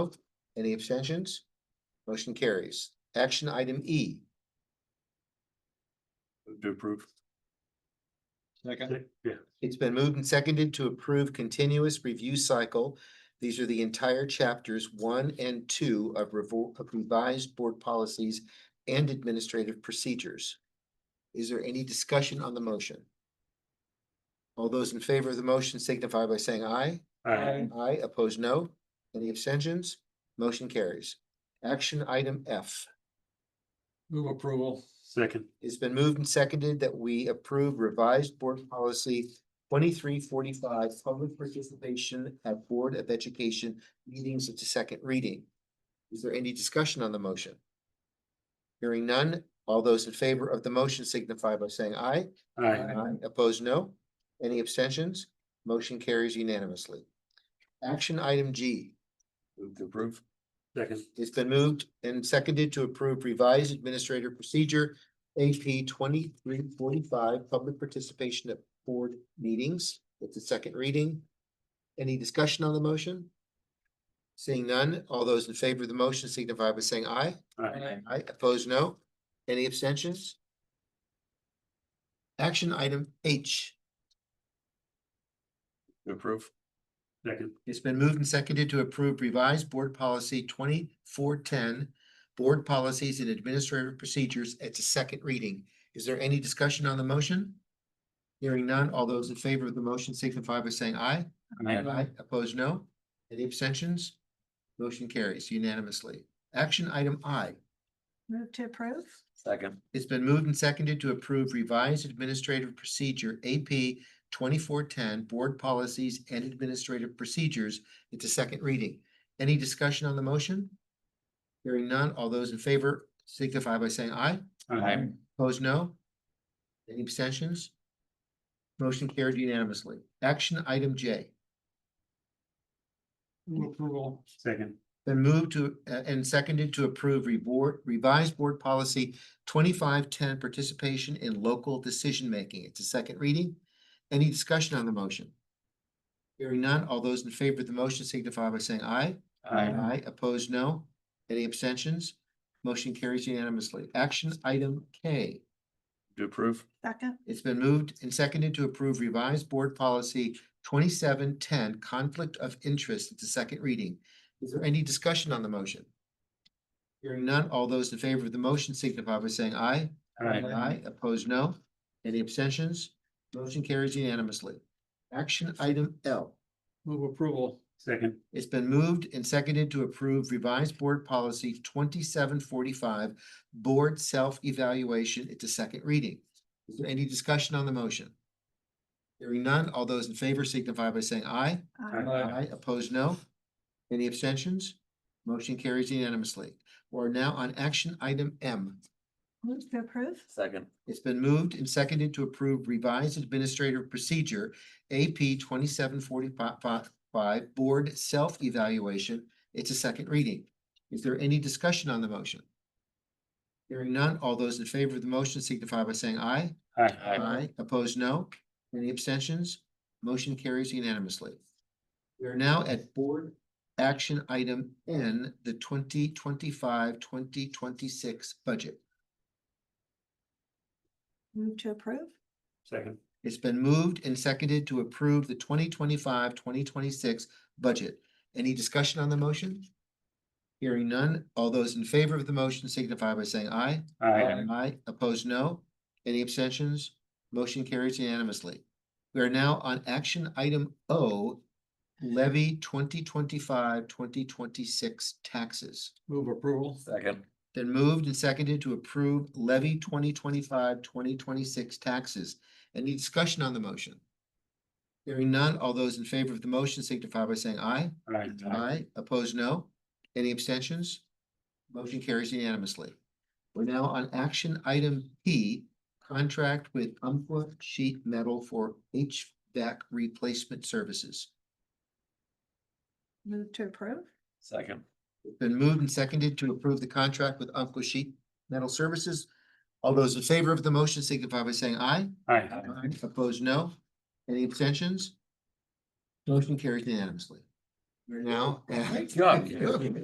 Any abstentions? Motion carries. Action item E, Move to approve. Second. Yeah. it's been moved and seconded to approve continuous review cycle. These are the entire chapters one and two of revo- of revised board policies and administrative procedures. Is there any discussion on the motion? All those in favor of the motion signify by saying aye. Aye. Aye, opposed, no. Any abstentions? Motion carries. Action item F. Move approval. Second. It's been moved and seconded that we approve revised board policy twenty-three forty-five, public participation at Board of Education meetings at the second reading. Is there any discussion on the motion? Hearing none, all those in favor of the motion signify by saying aye. Aye. Aye. Opposed, no. Any abstentions? Motion carries unanimously. Action item G. Move to approve. Second. It's been moved and seconded to approve revised administrative procedure AP twenty-three forty-five, public participation at board meetings. It's the second reading. Any discussion on the motion? Seeing none, all those in favor of the motion signify by saying aye. Aye. Aye, opposed, no. Any abstentions? Action item H. To approve. Second. It's been moved and seconded to approve revised board policy twenty-four ten, board policies and administrative procedures. It's a second reading. Is there any discussion on the motion? Hearing none, all those in favor of the motion signify by saying aye. Aye. Opposed, no. Any abstentions? Motion carries unanimously. Action item I. Move to approve? Second. It's been moved and seconded to approve revised administrative procedure AP twenty-four ten, board policies and administrative procedures. It's a second reading. Any discussion on the motion? Hearing none, all those in favor signify by saying aye. Aye. Opposed, no? Any abstentions? Motion carried unanimously. Action item J. Move approval. Second. Been moved to, uh, and seconded to approve reboard, revised board policy twenty-five ten, participation in local decision-making. It's a second reading. Any discussion on the motion? Hearing none, all those in favor of the motion signify by saying aye. Aye, opposed, no. Any abstentions? Motion carries unanimously. Action item K. To approve. Second? It's been moved and seconded to approve revised board policy twenty-seven ten, conflict of interest. It's a second reading. Is there any discussion on the motion? Hearing none, all those in favor of the motion signify by saying aye. Aye, opposed, no. Any abstentions? Motion carries unanimously. Action item L. Move approval. Second. It's been moved and seconded to approve revised board policy twenty-seven forty-five, board self-evaluation. It's a second reading. Is there any discussion on the motion? Hearing none, all those in favor signify by saying aye. Aye. Aye. Opposed, no. Any abstentions? Motion carries unanimously. We're now on action item M. Move to approve? Second. It's been moved and seconded to approve revised administrative procedure AP twenty-seven forty-five board self-evaluation. It's a second reading. Is there any discussion on the motion? Hearing none, all those in favor of the motion signify by saying aye. Aye. Opposed, no. Any abstentions? Motion carries unanimously. We are now at board action item N, the 2025-2026 budget. Move to approve? Second. It's been moved and seconded to approve the 2025-2026 budget. Any discussion on the motion? Hearing none, all those in favor of the motion signify by saying aye. Aye. Opposed, no. Any abstentions? Motion carries unanimously. We are now on action item O, levy 2025-2026 taxes. Move approval. Second. Then moved and seconded to approve levy 2025-2026 taxes. Any discussion on the motion? Hearing none, all those in favor of the motion signify by saying aye. Aye. Opposed, no. Any abstentions? Motion carries unanimously. We're now on action item P, contract with Umpqua Sheet Metal for HVAC replacement services. Move to approve? Second. It's Been moved and seconded to approve the contract with Umpqua Sheet Metal Services. All those in favor of the motion signify by saying aye. Aye. Opposed, no. Any abstentions? Motion carries unanimously. We're now. at- Great job, Jim.